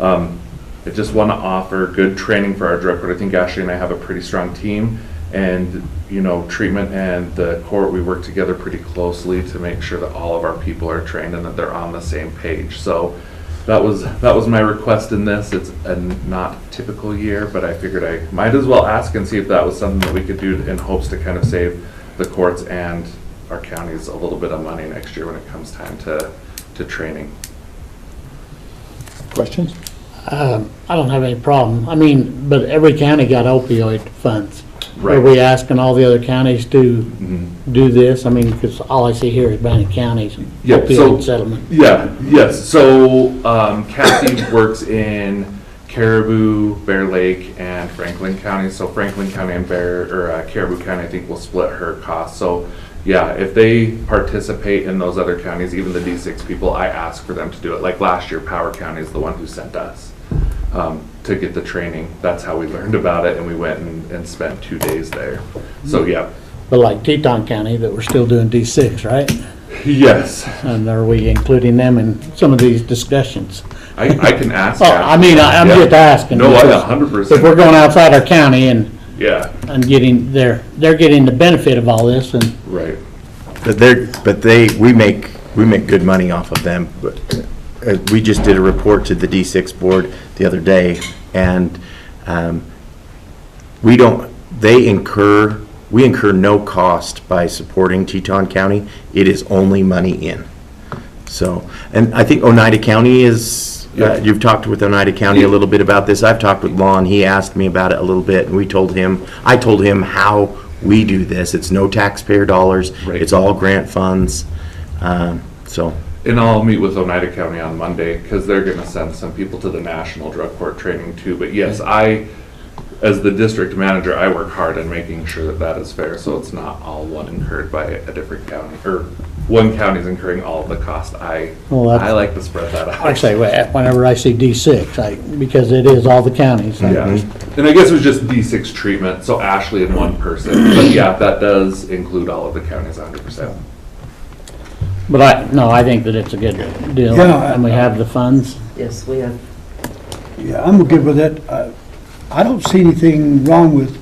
Um, I just want to offer good training for our director. I think Ashley and I have a pretty strong team. And, you know, treatment and the court, we work together pretty closely to make sure that all of our people are trained and that they're on the same page. So that was, that was my request in this. It's a not typical year, but I figured I might as well ask and see if that was something that we could do in hopes to kind of save the courts and our counties a little bit of money next year when it comes time to, to training. Questions? Um, I don't have any problem. I mean, but every county got opioid funds. Are Right. we asking all the other counties to Mhm. do this? I mean, because all I see here is Bannock County's Yeah, so- opioid settlement. Yeah, yes, so um, Kathy works in Caribou, Bear Lake, and Franklin County, so Franklin County and Bear, or uh, Caribou County, I think will split her costs, so, yeah, if they participate in those other counties, even the D6 people, I ask for them to do it, like last year, Power County is the one who sent us um, to get the training, that's how we learned about it, and we went and and spent two days there, so, yeah, But like Teton County, that we're still doing D6, right? yes, And are we including them in some of these discussions? I I can ask. Well, I mean, I- I'm Yeah. just asking. No, I because 100%. If we're going outside our county and, Yeah, and getting, they're, they're getting the benefit of all this and right. But they're, but they, we make, we make good money off of them. But uh, We just did a report to the D6 board the other day, and um, we don't, they incur, we incur no cost by supporting Teton County. It is only money in. So, and I think Oneida County is, Yeah. uh, you've talked with Oneida County a little bit about this. I've talked with Lon, he asked me about it a little bit, and we told him, I told him how we do this. It's no taxpayer dollars. Right. It's all grant funds. Um, So, And I'll meet with Oneida County on Monday, because they're gonna send some people to the National Drug Court Training too. But yes, Mm-hmm. I, as the district manager, I work hard in making sure that that is fair, so it's not all one incurred by a different county, or one county's incurring all of the cost. I, Well, that's- I like to spread that out. I say, wh- whenever I see D6, I, because it is all the counties. Yeah, and I guess it was just D6 treatment, so Ashley and one person. But yeah, that does include all of the counties 100%. But I, no, I think that it's a good deal, Yeah. and we have the funds. Yes, we have. Yeah, I'm good with it. I- I don't see anything wrong with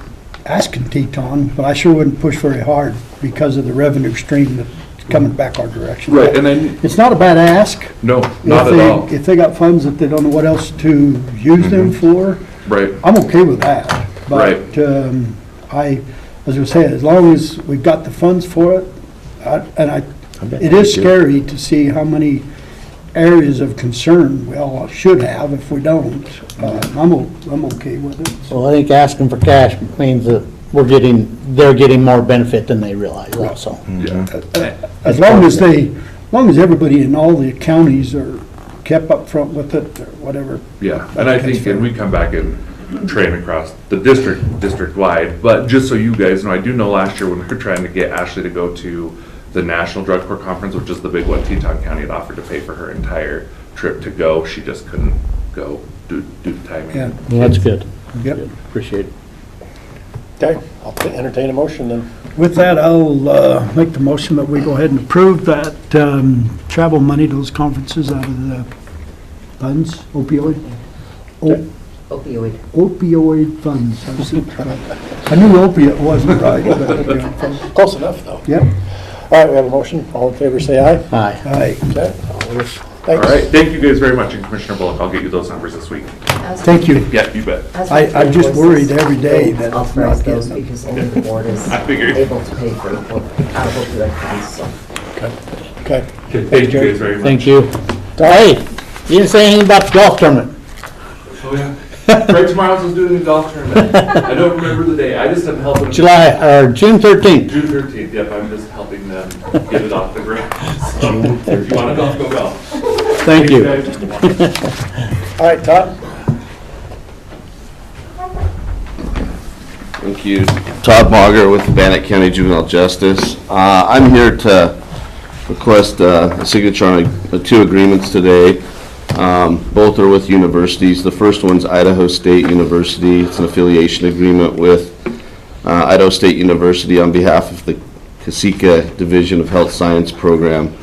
asking Teton, but I sure wouldn't push very hard because of the revenue stream that's coming back our direction. Right, and then, It's not a bad ask. no, if not at they- all, If they got funds that they don't know what else to use them Mm-hmm. for, right. I'm okay with that. Right. But um, I, as I was saying, as long as we've got the funds for it, I- and I, bet it they is do. scary to see how many areas of concern we all should have if we don't. Uh, I'm, o- I'm okay with it. Well, I think asking for cash means that we're getting, they're getting more benefit than they realize also. As long as they, as long as everybody in all the counties are kept up front with it or whatever. Yeah, and I think, and we come back and train across the district, district-wide, but just so you guys know, I do know last year when we were trying to get Ashley to go to the National Drug Court Conference, which is the big one, Teton County had offered to pay for her entire trip to go, she just couldn't go due, due to Yeah. timing. Well, That's good. Yep. Good. Appreciate it. Okay, I'll entertain a motion then. With that, I'll uh, make the motion that we go ahead and approve that um, travel money to those conferences out of the funds, opioid, o- Opioid. opioid funds. I was- I knew opiate wasn't right, but, yeah. Close enough, though. Yep, All right, we have a motion. All in favor, say aye. Aye. aye. Okay. all is- All Thanks. right, thank you guys very much, and Commissioner Bullock, I'll get you those numbers this week. Thank you. Yeah, you bet. I- I'm just worried every day that I'll it's not price those getting- because only the board is I figured. able to pay for what- out of opioid funds, so. Okay. Thank you guys very much. Thank you. Hey, you didn't say anything about the golf tournament. Oh, yeah. Greg Tomorrow's was doing the golf tournament, I don't remember the day, I just am helping. July, or June 13th. June thirteenth, yep, I'm just helping them get it off the ground. So if you want to golf, go golf. Thank you. All right, Todd? Thank you. Todd Mauger with the Bannock County Juvenile Justice. Uh, I'm here to request uh, a signature on uh, two agreements today. Um, Both are with universities. The first one's Idaho State University. It's an affiliation agreement with uh, Idaho State University on behalf of the Casica Division of Health Science Program.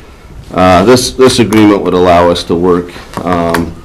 Uh, This, this agreement would allow us to work um,